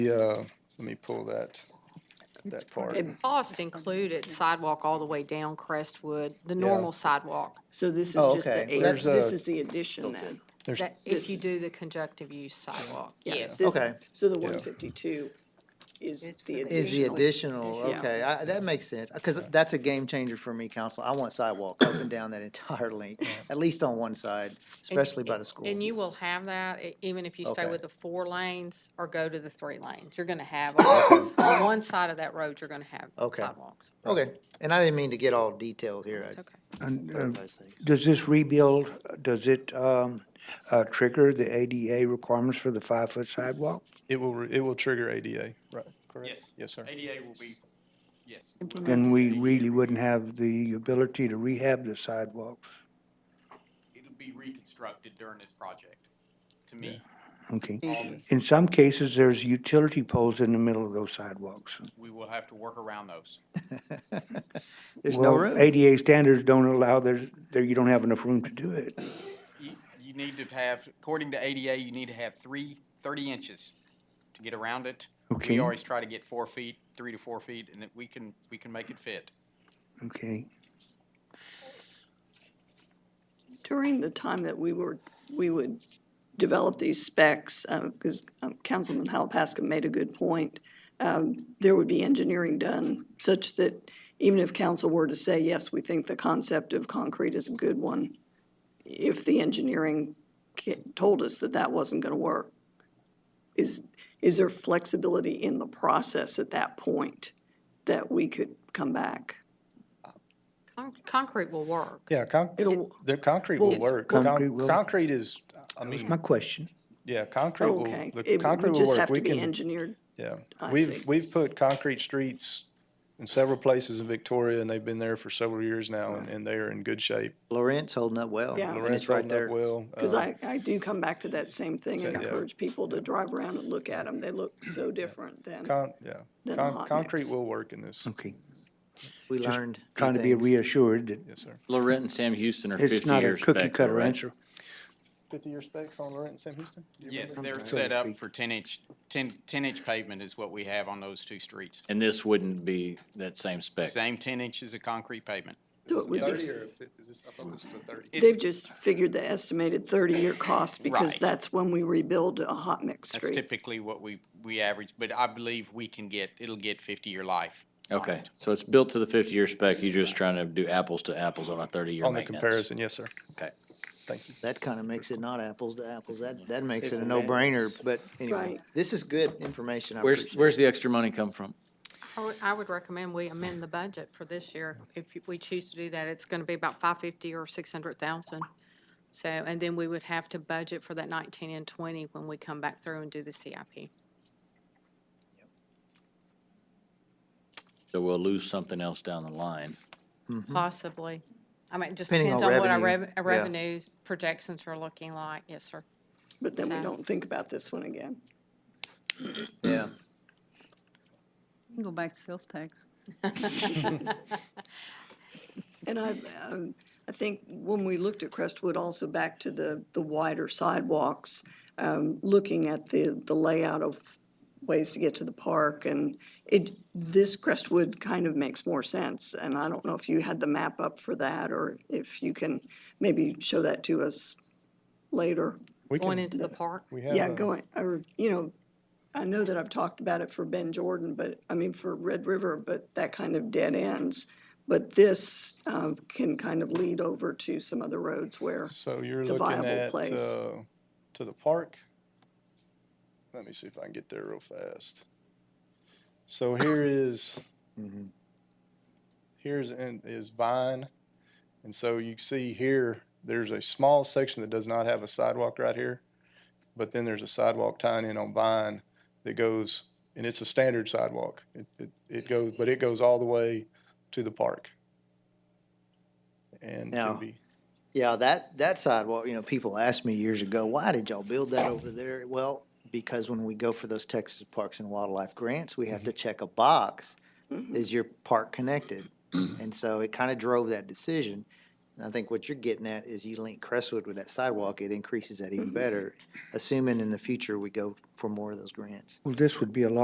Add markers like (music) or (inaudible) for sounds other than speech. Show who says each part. Speaker 1: Yeah, let me pull that, that part.
Speaker 2: The cost included sidewalk all the way down Crestwood, the normal sidewalk,
Speaker 3: So this is
Speaker 4: Oh,
Speaker 3: just the,
Speaker 4: okay.
Speaker 3: eight-
Speaker 1: There's
Speaker 3: this
Speaker 1: a-
Speaker 3: is the addition then.
Speaker 1: There's,
Speaker 2: that if you do the conjunctive use sidewalk,
Speaker 3: Yeah,
Speaker 2: yes.
Speaker 3: this-
Speaker 4: Okay.
Speaker 3: So the one fifty-two is
Speaker 2: It's for
Speaker 3: the
Speaker 2: the
Speaker 4: Is the
Speaker 3: additional.
Speaker 4: additional,
Speaker 3: Yeah.
Speaker 4: okay, I, that makes sense, because that's a game changer for me, council. I want sidewalk up and down that (laughs) entire length, at least on one side,
Speaker 2: And-
Speaker 4: especially by the school.
Speaker 2: And you will have that, e- even if you stay
Speaker 4: Okay.
Speaker 2: with the four lanes or go to the three lanes, you're gonna have, on on one side of that road, you're gonna have
Speaker 4: Okay.
Speaker 2: sidewalks.
Speaker 4: Okay, and I didn't mean to get all detailed here.
Speaker 2: It's
Speaker 4: I-
Speaker 2: okay.
Speaker 5: And uh,
Speaker 4: those things.
Speaker 5: does this rebuild, does it um, uh, trigger the ADA requirements for the five-foot sidewalk?
Speaker 1: it will, re- it will trigger ADA, right? Correct?
Speaker 6: Yes.
Speaker 1: Yes, sir.
Speaker 6: ADA will be, yes.
Speaker 5: Then we really wouldn't have the ability to rehab the sidewalks.
Speaker 6: It'll be reconstructed during this project, to me.
Speaker 5: Okay.
Speaker 6: Um,
Speaker 5: In some cases, there's utility poles in the middle of those sidewalks.
Speaker 6: We will have to work around those.
Speaker 4: There's no
Speaker 5: Well,
Speaker 4: room.
Speaker 5: ADA standards don't allow, there's, there, you don't have enough room to do it.
Speaker 6: You, you need to have, according to ADA, you need to have three, thirty inches to get around it.
Speaker 5: Okay.
Speaker 6: We always try to get four feet, three to four feet, and that we can, we can make it fit.
Speaker 5: Okay.
Speaker 3: During the time that we were, we would develop these specs, because Councilman Halapaska made a good point, um, there would be engineering done such that even if council were to say, yes, we think the concept of concrete is a good one, if the engineering ca- told us that that wasn't going to work, is, is there flexibility in the process at that point that we could come back?
Speaker 2: Con- Concrete will work.
Speaker 1: Yeah, con,
Speaker 3: It'll,
Speaker 1: their concrete will
Speaker 3: Yes.
Speaker 1: work.
Speaker 5: Concrete
Speaker 1: Con-
Speaker 5: will-
Speaker 1: Concrete is, I
Speaker 5: That was
Speaker 1: mean,
Speaker 5: my question.
Speaker 1: yeah, concrete will,
Speaker 3: okay.
Speaker 1: the
Speaker 3: It
Speaker 1: concrete
Speaker 3: would
Speaker 1: will
Speaker 3: just have
Speaker 1: work. We
Speaker 3: to be
Speaker 1: can,
Speaker 3: engineered
Speaker 1: yeah.
Speaker 3: I see.
Speaker 1: We've, we've put concrete streets in several places in Victoria and they've been there for several years now and, and they are in good shape.
Speaker 4: Lawrence holding up well.
Speaker 3: Yeah.
Speaker 4: and it's
Speaker 1: Lawrence
Speaker 4: right
Speaker 1: holding
Speaker 4: there.
Speaker 1: up well.
Speaker 3: Because
Speaker 1: uh,
Speaker 3: I, I do come back to that same thing and
Speaker 1: Yeah.
Speaker 3: encourage people to drive around and look at them. They look so different than,
Speaker 1: Con, yeah.
Speaker 3: Then
Speaker 1: Con,
Speaker 3: hot
Speaker 1: concrete
Speaker 3: mix.
Speaker 1: will work in this.
Speaker 5: Okay.
Speaker 4: We
Speaker 5: Just
Speaker 4: learned. few
Speaker 5: Trying to be
Speaker 4: things.
Speaker 5: reassured that
Speaker 1: Yes, sir.
Speaker 7: Lorette and Sam Houston are
Speaker 5: it's
Speaker 7: fifty
Speaker 5: not a
Speaker 7: years
Speaker 5: cookie
Speaker 7: back,
Speaker 5: cutter
Speaker 7: correct?
Speaker 5: answer.
Speaker 1: Fifty-year specs on Lorette and Sam Houston?
Speaker 6: Yes, they're set up for ten inch, 10 10 inch pavement is what we have on those two streets.
Speaker 7: And this wouldn't be that same spec.
Speaker 6: Same ten inches of concrete pavement.
Speaker 3: so it would be,
Speaker 1: Thirty or fif- is this, I thought this was the thirty.
Speaker 6: It's-
Speaker 3: they've just figured the estimated thirty-year cost because
Speaker 6: Right.
Speaker 3: that's when we rebuild a hot mix
Speaker 6: That's
Speaker 3: street.
Speaker 6: typically what we, we average, but I believe we can get, it'll get fifty-year life.
Speaker 7: Okay, so it's built to the fifty-year spec, you're just trying to do apples to apples on a thirty-year
Speaker 1: On the
Speaker 7: maintenance.
Speaker 1: comparison, yes, sir.
Speaker 7: Okay.
Speaker 1: Thank you.
Speaker 4: That kind of makes it not apples to apples. That, that makes it a no-brainer, but anyway,
Speaker 3: Right.
Speaker 4: this is good information. I
Speaker 7: Where's,
Speaker 4: appreciate it.
Speaker 7: where's the extra money come from?
Speaker 2: I would, I would recommend we amend the budget for this year. If you- we choose to do that, it's gonna be about five fifty or six hundred thousand. So, and then we would have to budget for that nineteen and twenty when we come back through and do the CIP.
Speaker 7: So we'll lose something else down the line.
Speaker 2: Possibly. I mean, it just
Speaker 4: Mm-hmm. Depending
Speaker 2: depends
Speaker 4: on
Speaker 2: on what our
Speaker 4: revenue,
Speaker 2: rev- our
Speaker 4: yeah.
Speaker 2: revenue projections are looking like. Yes, sir.
Speaker 3: But then we
Speaker 2: So-
Speaker 3: don't think about this one again.
Speaker 4: Yeah.
Speaker 8: You can Go back to sales tax.
Speaker 3: And I, um, I think when we looked at Crestwood, also back to the, the wider sidewalks, um, looking at the, the layout of ways to get to the park, and it, this Crestwood kind of makes more sense, and I don't know if you had the map up for that, or if you can maybe show that to us later.
Speaker 1: We
Speaker 2: Going
Speaker 1: can-
Speaker 2: into the park.
Speaker 1: We have.
Speaker 3: Yeah,
Speaker 1: uh,
Speaker 3: going, or, you know, I know that I've talked about it for Ben Jordan, but, I mean, for Red River, but that kind of dead ends. But this um, can kind of lead over to some other roads where,
Speaker 1: So you're
Speaker 3: It's a
Speaker 1: looking
Speaker 3: viable
Speaker 1: at,
Speaker 3: place.
Speaker 1: uh, to the park. Let me see if I can get there real fast. So here is, here's, in- is Vine. And so you see here, there's a small section that does not have a sidewalk right here. But then there's a sidewalk tying in on Vine that goes, and it's a standard sidewalk. It, it, it goes, but it goes all the way to the park. And
Speaker 4: Now,
Speaker 1: can be.
Speaker 4: Yeah, that, that sidewalk, you know, people asked me years ago, why did y'all build that over there? Well, because when we go for those Texas Parks and Wildlife grants, we have to check a box, is your park connected? And so it kind of drove that decision. And I think what you're getting at is you link Crestwood with that sidewalk, it increases that even better, assuming in the future we go for more of those grants.
Speaker 5: Well, this would be a lot